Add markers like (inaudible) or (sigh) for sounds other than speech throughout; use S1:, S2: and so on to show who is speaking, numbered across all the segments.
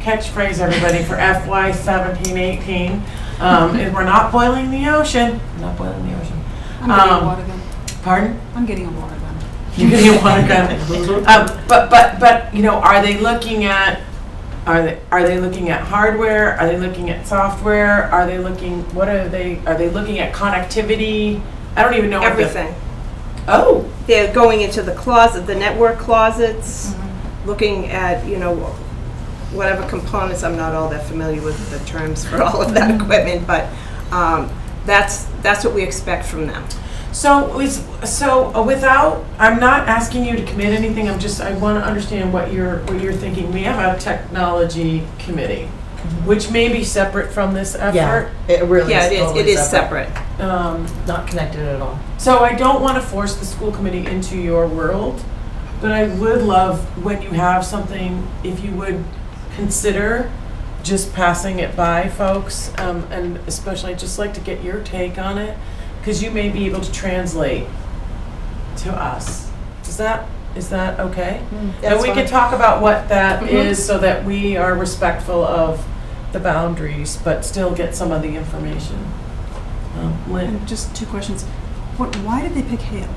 S1: catchphrase, everybody, for FY seventeen, eighteen. Um, is we're not boiling the ocean, not boiling the ocean.
S2: I'm getting
S1: Um,
S2: a water gun.
S1: Pardon? (laughs)
S2: I'm getting a water gun.
S1: You can get one gun. Um, but, but, but, you know, are they looking at, are they, are they looking at hardware? Are they looking at software? Are they looking, what are they, are they looking at connectivity? I don't even know. what the-
S3: Everything.
S1: Oh,
S3: They're going into the closet, the network closets, looking at, you know, whatever components, I'm not all that familiar with the terms for (laughs) all of that equipment, but um, that's, that's what we expect from them.
S1: so is, so uh, without, I'm not asking you to commit anything, I'm just, I want to understand what you're, what you're thinking. We have a technology committee, which may be separate from this
S4: Yeah,
S1: effort.
S4: it really
S3: Yeah,
S4: is
S3: it is, it
S4: totally
S3: is separate.
S1: Um,
S4: Not connected at all.
S1: So I don't want to force the school committee into your world, but I would love when you have something, if you would consider just passing it by folks, um, and especially I'd just like to get your take on it, because you may be able to translate to us. Is that, is that okay? And
S4: Mm, That's
S1: we
S4: fine. Mm-hmm.
S1: could talk about what that
S3: Mhm.
S1: is so that we are respectful of the boundaries, but still get some of the information. Um, Lynn?
S2: And just two questions. What, why did they pick Hale?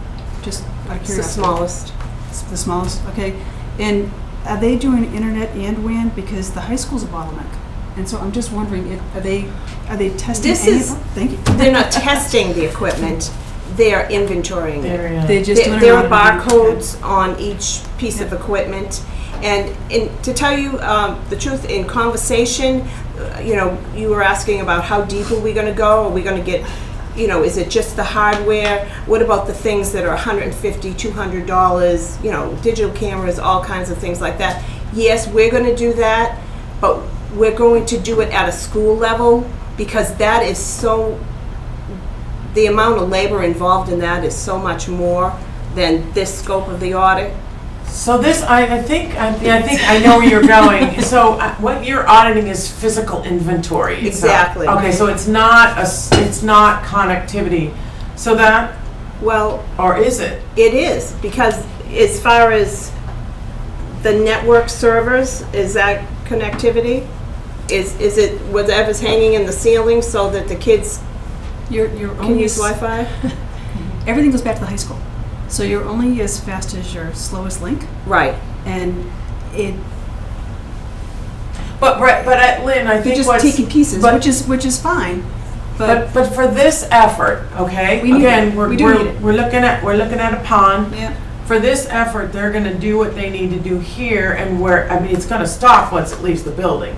S2: Just out of
S3: It's the
S2: curiosity.
S3: smallest.
S2: It's the smallest, okay. And are they doing internet and WAN? Because the high school's a bottleneck. And so I'm just wondering, if- are they, are they testing
S3: This
S2: any of
S3: is-
S2: them? Thank you.
S3: They're not testing the equipment, they're inventorying it.
S1: Darian?
S2: (laughs) They're just doing
S3: There
S2: it.
S3: there are
S2: around-
S3: barcodes on each piece of equipment. And in, to tell you um, the truth, in conversation, uh, you know, you were asking about how deep are we gonna go? Are we gonna get, you know, is it just the hardware? What about the things that are $150, $200, you know, digital cameras, all kinds of things like that? Yes, we're gonna do that, but we're going to do it at a school level because that is so the amount of labor involved in that is so much more than this scope of the audit.
S1: So this, I, I think, I, I think I know where you're going. So uh, what you're auditing is physical inventory. It's not-
S3: Exactly.
S1: Okay, so it's not a, s- it's not connectivity. So that,
S3: Well,
S1: or is it?
S3: it is, because as far as the network servers, is that connectivity? Is, is it whatever's hanging in the ceiling so that the kids
S2: You're, you're
S3: can
S2: only,
S3: use
S2: as-
S3: Wi-Fi?
S2: everything goes back to the high school. So you're only as fast as your slowest link.
S3: Right.
S2: And it,
S1: But right, but uh, Lynn, I
S2: you're
S1: think
S2: just
S1: what's.
S2: taking pieces,
S1: but-
S2: which is, which is fine.
S1: But,
S2: But,
S1: but for this effort, okay?
S2: We need
S1: Again,
S2: it.
S1: we're,
S2: We do
S1: we're-
S2: need it.
S1: We're looking at, we're looking at a pond.
S2: yeah.
S1: For this effort, they're gonna do what they need to do here and where, I mean, it's gonna stop once it leaves the building.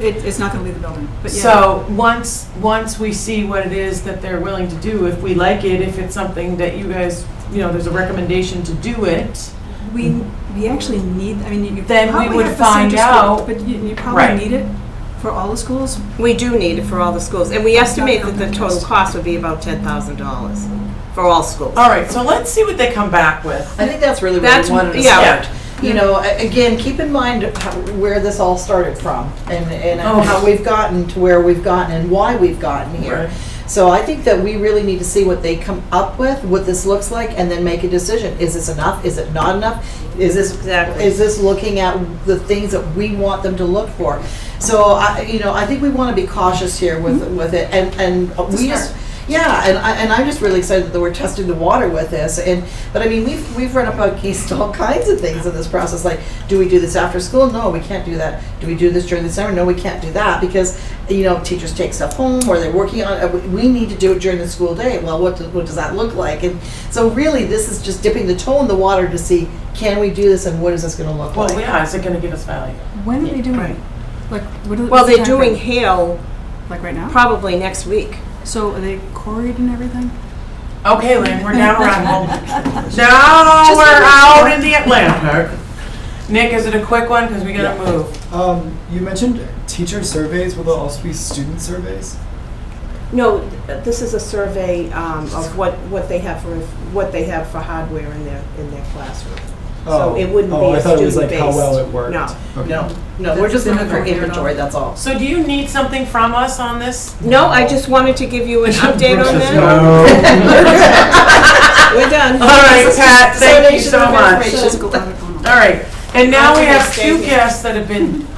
S2: It, it's not going to leave the building. But yeah.
S1: So, once, once we see what it is that they're willing to do, if we like it, if it's something that you guys, you know, there's a recommendation to do it,
S2: we we actually need. I mean, you
S1: Then we
S2: probably
S1: would
S2: have to send
S1: find
S2: your school,
S1: out-
S2: but you, you probably
S1: Right.
S2: need it for all the schools.
S3: We do need it for all the schools, and we estimate that the total cost would be about ten thousand dollars for all schools.
S1: all right, so let's see what they come back with.
S4: I think that's really where
S3: That's-
S4: we wanted to
S3: yeah.
S4: start. You know, a- again, keep in mind how- where this all started from and, and
S1: Oh.
S4: how we've gotten to where we've gotten and why we've gotten
S1: Right.
S4: here. So I think that we really need to see what they come up with, what this looks like, and then make a decision. Is this enough? Is it not enough? Is this,
S3: Exactly.
S4: is this looking at the things that we want them to look for? So I, you know, I think we want to be cautious here with,
S3: Mm-hmm.
S4: with it and, and we just, yeah, and I, and I'm just really excited that we're testing the water with this. And but I mean, we've we've run up against all (laughs) kinds of things in this process. Like, do we do this after school? No, we can't do that. Do we do this during the summer? No, we can't do that because you know teachers take stuff home or they're working on. uh, we- We need to do it during the school day. Well, what do, what does that look like? And so really, this is just dipping the toe in the water to see can we do this and what is this going to look
S1: Well,
S4: like.
S1: yeah, is it gonna give us value?
S2: When are they doing
S1: Right.
S2: it? Like what are
S3: Well,
S2: what's the
S3: they're
S2: time
S3: doing
S2: frame?
S3: Hale
S2: like right now.
S3: probably next week.
S2: so are they quarried and everything?
S1: Okay, Lynn, we're now (laughs) around home. Now we're out in the Atlantic. Nick, is it a quick one? Because we gotta
S5: Yeah.
S1: move.
S5: Um, you mentioned teacher surveys. Will there also be student surveys?
S3: No, th- this is a survey um, of what, what they have for, what they have for hardware in their, in their classroom. So it wouldn't
S5: oh,
S3: be
S5: I
S3: a
S5: thought it was like how
S3: student-based.
S5: well it worked.
S3: No.
S5: Okay.
S4: No, no, we're just
S2: That's
S4: looking for
S2: different.
S4: inventory. That's all.
S1: So do you need something from us on this?
S3: No, I just wanted to give (laughs) you an update on that.
S5: (laughs)
S3: (laughs)
S5: No.
S3: We're done.
S1: All right, Pat, thank you
S4: Donation
S1: so
S4: of
S1: much.
S4: information.
S2: Physical audit going on.
S1: All right, and now we have
S3: Alternate
S1: two
S3: days.
S1: guests that have been